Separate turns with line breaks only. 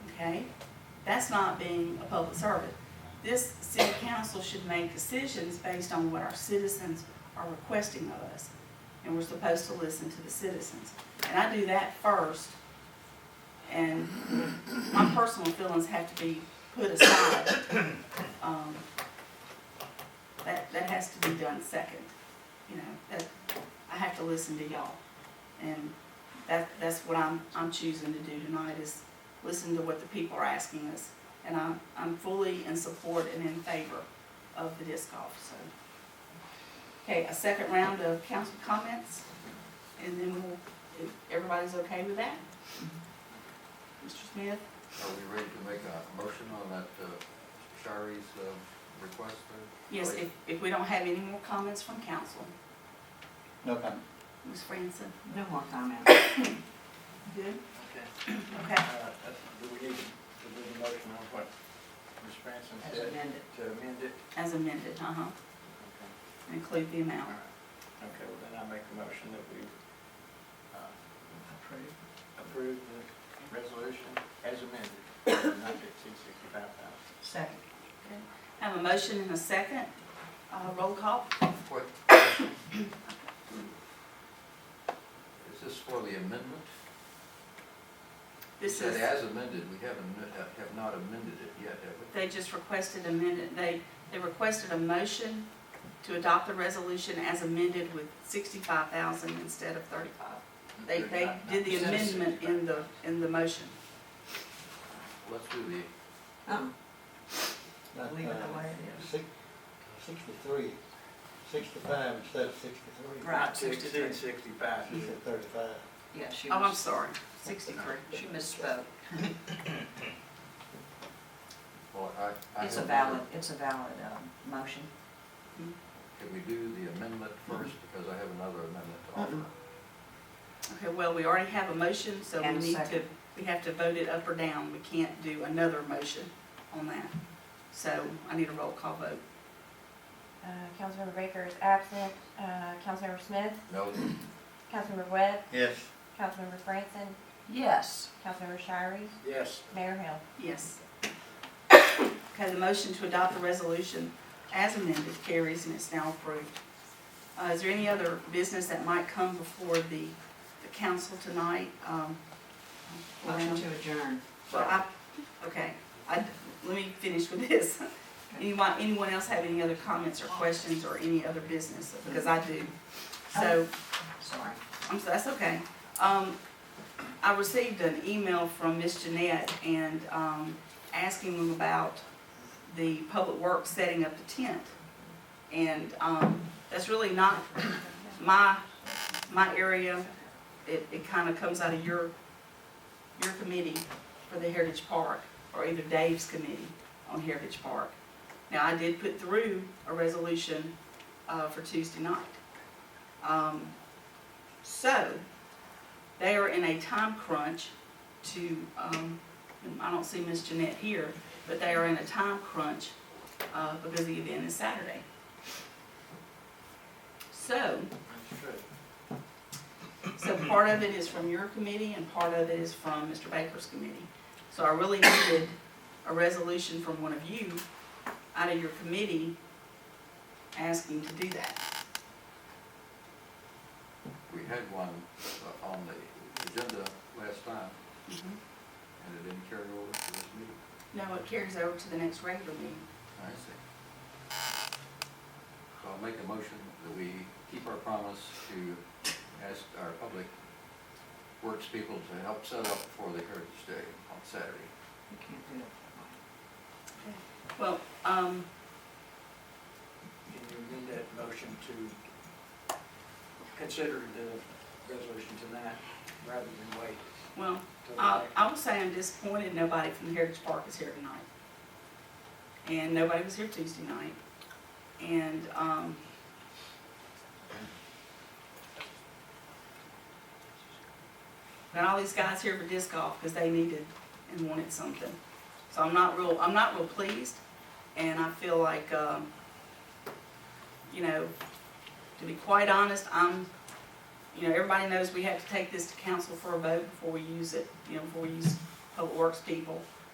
okay? That's not being a public servant. This city council should make decisions based on what our citizens are requesting of us. And we're supposed to listen to the citizens. And I do that first. And my personal feelings have to be put aside. Um, That, that has to be done second, you know, that, I have to listen to y'all. And that, that's what I'm, I'm choosing to do tonight is listen to what the people are asking us. And I'm, I'm fully in support and in favor of the disc golf, so. Okay, a second round of council comments, and then we'll, if everybody's okay with that? Mr. Smith?
Are we ready to make a motion on that uh, Shari's um, request? there?
Yes, if, if we don't have any more comments from council,
No comment.
Ms. Franson,
No more comments.
good?
Okay.
Okay,
Uh, that's- Do we need to, to do the motion on what Ms. Branson
As
said,
amended.
to amend it?
as amended, uh-huh,
Okay.
include the amount.
Okay, well then I make a motion that we, uh, Approve. Approve the resolution as amended, not to exceed sixty-five thousand.
Second.
Have a motion and a second, uh, roll call?
What? Is this for the amendment? You
This
said
is,
as amended, we haven't, uh, have not amended it yet, have we?
they just requested a minute, they, they requested a motion to adopt the resolution as amended with sixty-five thousand instead of thirty-five. They, they did the amendment in the, in the motion.
Let's do the,
Um,
But,
Leave it
Oh, uh,
the way it is.
six- Sixty-three, sixty-five instead of sixty-three.
Right.
Not to exceed sixty-five.
She said thirty-five.
yeah, she
Oh, I'm
was,
sorry, sixty-three.
she misspoke.
well, I. I
It's a
have-
valid, it's a valid, um, motion.
Can we do the amendment first, because I have another amendment to offer?
Okay, well, we already have a motion, so we
And a
need to,
second.
we have to vote it up or down. We can't do another motion on that. So I need a roll call vote.
Uh, Councilmember Baker is absent. Uh, Councilmember Smith,
No,
Councilmember Webb,
Yes.
Councilmember Franson,
Yes.
Councilmember Shirey,
Yes,
Mayor Hill.
Yes. Okay, the motion to adopt the resolution as amended carries and it's now approved. Uh, Is there any other business that might come before the, the council tonight? Um,
Motion to adjourn.
Well, I, okay, I, let me finish with this. Anyone, anyone else have any other comments or questions or any other business? Because I do.
Um,
So,
Sorry.
I'm, so- that's okay. Um, I received an email from Miss Jeanette and, um, asking them about the public works setting up the tent. And, um, that's really not my, my area. It, it kinda comes out of your, your committee for the Heritage Park, or either Dave's committee on Heritage Park. Now, I did put through a resolution, uh, for Tuesday night. Um, so, they are in a time crunch to, um, I don't see Miss Jeanette here, but they are in a time crunch, uh, because the event is Saturday. So,
that's true.
so part of it is from your committee and part of it is from Mr. Baker's committee. So I really needed a resolution from one of you out of your committee asking to do that.
we had one uh, on the agenda last time, and it didn't carry over to this meeting.
No, it carries over to the next regular meeting.
I see. So I'll make a motion that we keep our promise to ask our public works people to help set up for the Heritage Day on Saturday.
You can't do it
Well, um,
Can you amend that motion to consider the resolution tonight rather than wait
well,
till
Uh,
the
I,
next?
I will say I'm disappointed nobody from the Heritage Park is here tonight. And nobody was here Tuesday night. And, um, got all these guys here for disc golf because they needed and wanted something. So I'm not real, I'm not real pleased and I feel like, um, you know, to be quite honest, I'm you know, everybody knows we have to take this to council for a vote before we use it, you know, before we use public works people.